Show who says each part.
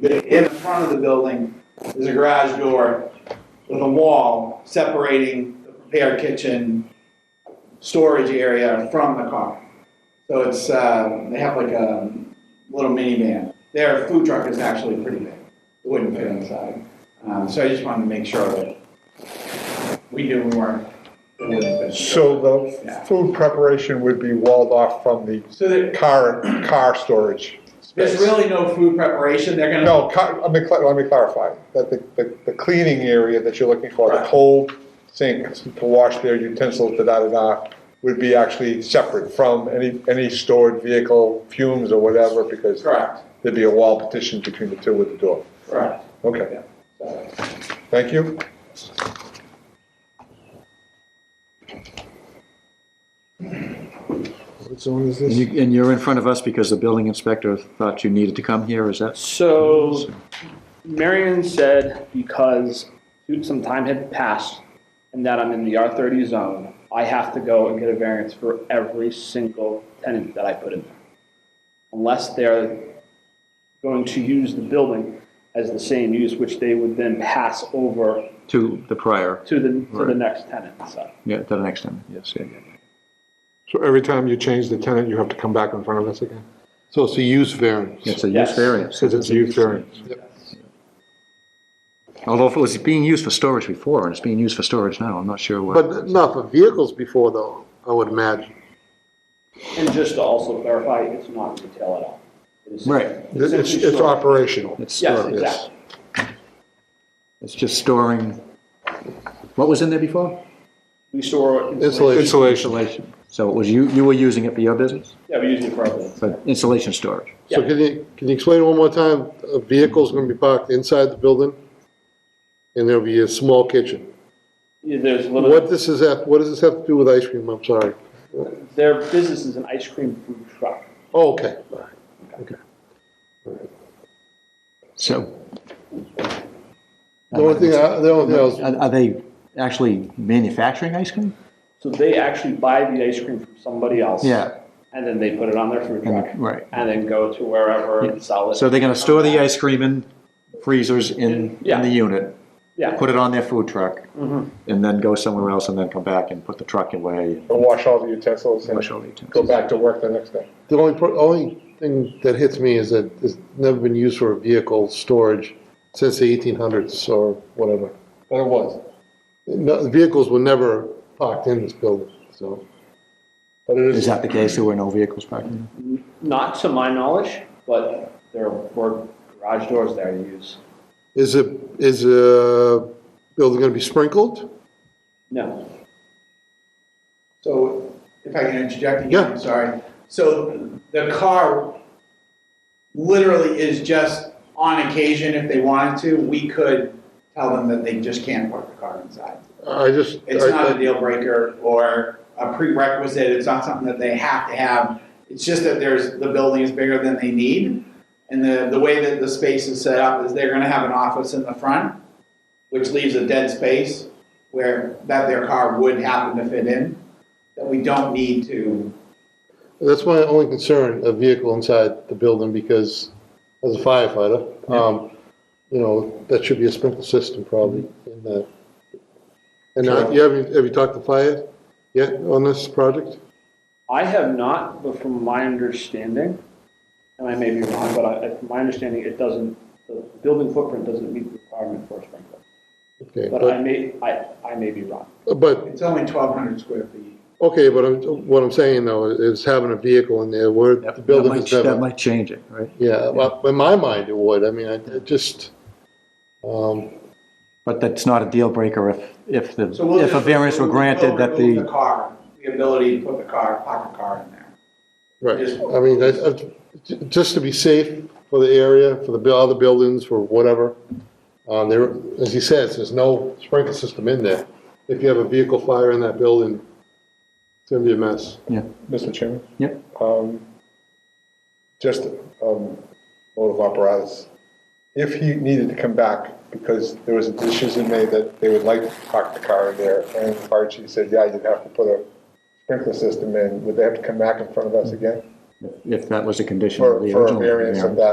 Speaker 1: in the front of the building is a garage door with a wall separating the prepared kitchen storage area from the car. So it's, uh, they have like a little minivan. Their food truck is actually pretty big. It wouldn't fit inside. Um, so I just wanted to make sure that we knew we weren't. it wouldn't fit.
Speaker 2: So the food preparation would be walled off from the
Speaker 1: So there,
Speaker 2: car, car storage
Speaker 1: there's
Speaker 2: space?
Speaker 1: really no food preparation. They're gonna.
Speaker 2: No, car- let me, cla- let me clarify, that the, the- the cleaning area that you're looking for, the
Speaker 1: Right.
Speaker 2: cold sink to wash their utensils, da-da-da-da, would be actually separate from any, any stored vehicle fumes or whatever, because
Speaker 1: Correct,
Speaker 2: there'd be a wall petition between the two with the door.
Speaker 1: correct.
Speaker 2: Okay, thank you.
Speaker 3: What zone is
Speaker 4: And
Speaker 3: this?
Speaker 4: you- And you're in front of us because the building inspector thought you needed to come here, is that?
Speaker 5: So Marion said because some time had passed and that I'm in the R30 zone, I have to go and get a variance for every single tenant that I put in there. Unless they're going to use the building as the same use, which they would then pass over
Speaker 4: To the prior,
Speaker 5: to the, to the
Speaker 4: Right.
Speaker 5: next tenant, so.
Speaker 4: yeah, to the next time, yes, yeah, yeah.
Speaker 3: So every time you change the tenant, you have to come back in front of us again? So it's a use variance?
Speaker 4: It's a use
Speaker 5: Yes.
Speaker 4: variance.
Speaker 3: Says it's a use variance.
Speaker 4: Although if it was being used for storage before, and it's being used for storage now, I'm not sure what.
Speaker 6: But not for vehicles before, though, I would imagine.
Speaker 5: And just to also clarify, it's not retail at all. It is-
Speaker 4: Right,
Speaker 3: It's, it's operational.
Speaker 4: it's
Speaker 5: Yes,
Speaker 4: storage,
Speaker 5: exactly.
Speaker 4: it's just storing, what was in there before?
Speaker 5: We store
Speaker 3: Insulation.
Speaker 5: insulation.
Speaker 4: Insulation. So it was you, you were using it for your business,
Speaker 5: Yeah, we use it for our buildings.
Speaker 4: for insulation storage?
Speaker 6: So
Speaker 5: Yeah.
Speaker 6: can you, can you explain one more time, a vehicle's gonna be parked inside the building? And there'll be a small kitchen.
Speaker 5: Yeah, There's little.
Speaker 6: What this is, at- what does this have to do with ice cream? I'm sorry.
Speaker 5: Their business is an ice cream food truck.
Speaker 6: Oh, okay, all right, okay.
Speaker 4: So.
Speaker 6: The only thing, I- the only thing I was
Speaker 4: Are are they actually manufacturing ice cream?
Speaker 5: So they actually buy the ice cream from somebody else.
Speaker 4: Yeah.
Speaker 5: And then they put it on their food truck.
Speaker 4: And- right.
Speaker 5: And then go to wherever and sell it.
Speaker 4: So they're gonna store the ice cream in freezers in, in
Speaker 5: Yeah.
Speaker 4: the unit,
Speaker 5: Yeah,
Speaker 4: put it on their food truck, and then go somewhere else, and then come back and put the truck away and
Speaker 2: And wash all the utensils and
Speaker 4: push all the utensils.
Speaker 2: go back to work the next day.
Speaker 6: The only, pro- only thing that hits me is that it's never been used for vehicle storage since the eighteen hundreds or whatever.
Speaker 2: But it was,
Speaker 6: No, the vehicles were never parked in this building, so.
Speaker 2: but it
Speaker 4: Is
Speaker 2: is,
Speaker 4: that the case? There were no vehicles parked in?
Speaker 5: not to my knowledge, but there were garage doors there to use.
Speaker 6: Is it, is the building gonna be sprinkled?
Speaker 5: No,
Speaker 1: So if I can interject again,
Speaker 6: Yeah.
Speaker 1: I'm sorry. So the car literally is just on occasion, if they wanted to, we could tell them that they just can't park the car inside.
Speaker 6: I just.
Speaker 1: It's
Speaker 6: I-
Speaker 1: not a deal breaker or a prerequisite, it's not something that they have to have. It's just that there's, the building is bigger than they need. And the, the way that the space is set up is they're gonna have an office in the front, which leaves a dead space where, that their car would happen to fit in, that we don't need to.
Speaker 6: That's my only concern, a vehicle inside the building, because as a firefighter, um, you know, that should be a sprinkler system probably in the. And uh, you have, have you talked to fire yet on this project?
Speaker 5: I have not, but from my understanding, and I may be wrong, but I, from my understanding, it doesn't, the building footprint doesn't meet the requirement for a sprinkler.
Speaker 6: Okay,
Speaker 5: But I may, I, I may be wrong.
Speaker 6: but
Speaker 1: It's only twelve hundred square feet.
Speaker 6: Okay, but I'm, what I'm saying though is having a vehicle in there where the building
Speaker 4: That
Speaker 6: is
Speaker 4: might- That
Speaker 6: never.
Speaker 4: might change it, right?
Speaker 6: Yeah, well, in my mind it would, I mean, I it just, um,
Speaker 4: But that's not a deal breaker if, if the,
Speaker 1: So we'll
Speaker 4: if a
Speaker 1: just-
Speaker 4: variance were
Speaker 1: we'll
Speaker 4: granted that
Speaker 1: remove The
Speaker 4: the,
Speaker 1: car, the ability to put the car, park a car in there.
Speaker 6: right,
Speaker 1: Just-
Speaker 6: I mean, I, I- j- just to be safe for the area, for the bu- other buildings, for whatever. Um, there, as he says, there's no sprinkler system in there. If you have a vehicle fire in that building, it's gonna be a mess.
Speaker 2: Mr. Chairman?
Speaker 4: Yep.
Speaker 2: Um, Just um, mode of apparatus. If he needed to come back, because there was a decision made that they would like to park the car in there, and the fire chief said, yeah, you'd have to put a sprinkler system in, would they have to come back in front of us again?
Speaker 4: if that was a condition of
Speaker 2: For
Speaker 4: the
Speaker 2: for a
Speaker 4: original
Speaker 2: variance of
Speaker 4: variance?
Speaker 2: that